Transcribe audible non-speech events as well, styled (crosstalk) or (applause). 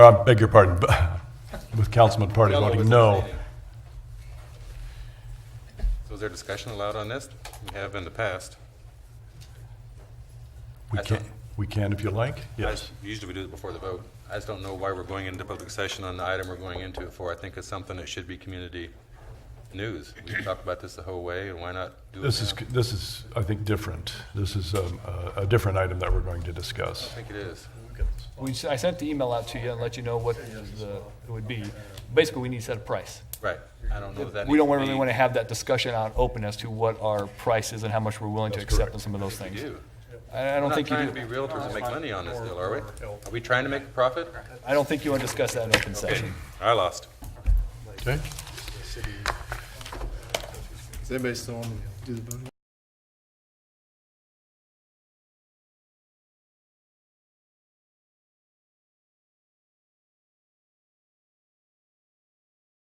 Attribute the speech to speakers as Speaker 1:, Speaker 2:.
Speaker 1: I beg your pardon, but (laughs) with Councilman Party
Speaker 2: Y'all know
Speaker 1: voting
Speaker 2: what's
Speaker 1: no.
Speaker 2: abstaining. So is there discussion allowed on this? We have in the past.
Speaker 1: We
Speaker 2: I
Speaker 1: can,
Speaker 2: don't-
Speaker 1: we can if you like,
Speaker 2: I
Speaker 1: yes.
Speaker 2: just- Usually we do it before the vote. I just don't know why we're going into public session on the item we're going into it for. I think it's something that should be community news. We've talked about this the whole way, and why not do it now?
Speaker 1: This is, this is, I think, different. This is um, a, a different item that we're going to discuss.
Speaker 2: I think it is.
Speaker 3: We, s- I sent the email out to you and let you know what the, it would be. Basically, we need to set a price.
Speaker 2: Right. I don't know if that.
Speaker 3: We don't
Speaker 2: needs
Speaker 3: really
Speaker 2: be-
Speaker 3: want to have that discussion out open as to what our price is and how much we're willing to accept on some of those
Speaker 2: We
Speaker 3: things.
Speaker 2: do.
Speaker 3: I I
Speaker 2: We're
Speaker 3: don't
Speaker 2: not
Speaker 3: think you
Speaker 2: trying
Speaker 3: do.
Speaker 2: to be realtors and make money on this deal, are we? Are we trying to make a profit?
Speaker 3: I don't think you want to discuss that in open session.
Speaker 2: I lost.
Speaker 1: Okay?
Speaker 4: Does anybody still want to do the voting?